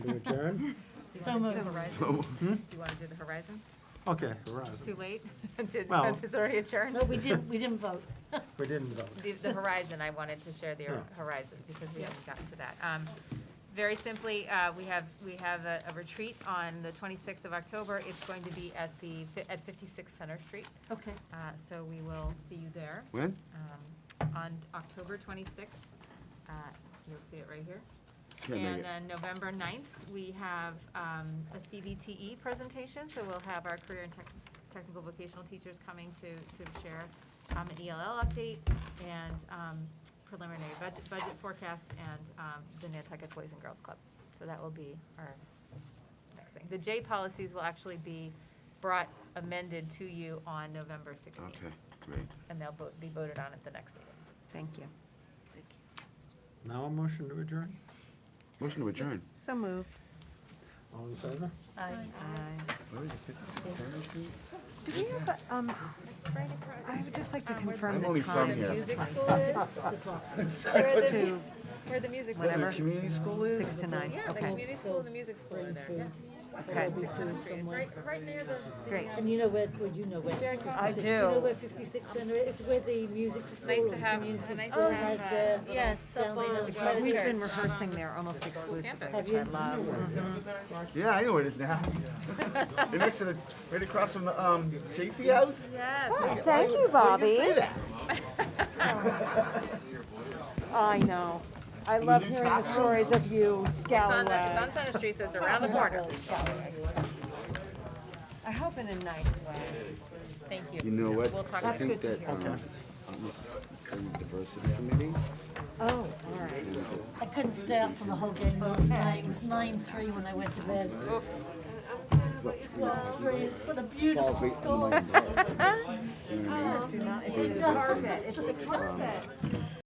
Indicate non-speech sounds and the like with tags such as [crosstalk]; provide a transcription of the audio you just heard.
to adjourn? Hmm? So moved. Horizon? Hmm? Do you want to do the Horizon? Okay, It's Horizon. Too late? [laughs] Did- Well- It's already adjourned? No, we didn't, we didn't [laughs] vote. We didn't vote. The- The Horizon, I wanted to share the Yeah. Horizon because we haven't gotten to that. Um, Very simply, uh, we have, we have a a retreat on the 26th of October. It's going to be at the, fi- at 56 Center Street. Okay. Uh, So we will see you there. When? um, on October 26th. Uh, You'll see it right here. Can't make And it. then November 9th, we have um, a CVTE presentation, so we'll have our career and tech- technical vocational teachers coming to, to share um, an ELL update and um, preliminary budget, budget forecast and um, the Nantucket Boys and Girls Club. So that will be our next thing. The J policies will actually be brought amended to you on November 16th Okay, great. and they'll vote- be voted on at the next meeting. Thank you. Now a motion to adjourn? Motion to adjourn. So moved. All in favor? Where is it, 56 Center Street? Do we have, a, um, I would just like to confirm I'm only the from time. here. Music school is, Six to, where the music school Where the Whatever. community school is? six to nine, Yeah, the okay, community school and the music school are there, yeah. okay. It's right, right near the, Oh, Great. And you know where, well, you know where. I You know do. where 56 Center is, It's where the music school. nice to and have- community it's nice to school has have, their uh, little yes, down up the on hill the credit garden. We've card. been rehearing there almost exclusively, campus. which I love. Yeah, I know where it is [laughs] now. It next to the, right across from the, um, JC House? yes. Oh, Thank you, Bobby. I know. I love hearing the stories of you It's on, the- it's scallywag. on Center Street, so it's around the corner. I hope in a nice way. Thank you. You know what? We'll talk I about it. think That's good that, um, to um, the diversity committee, Oh, all right. I couldn't stay up for the whole game last night. It was 9-3 when I went to bed. Oh. this is what, Well, great. What a beautiful school. Do not- It's the carpet, it's the carpet.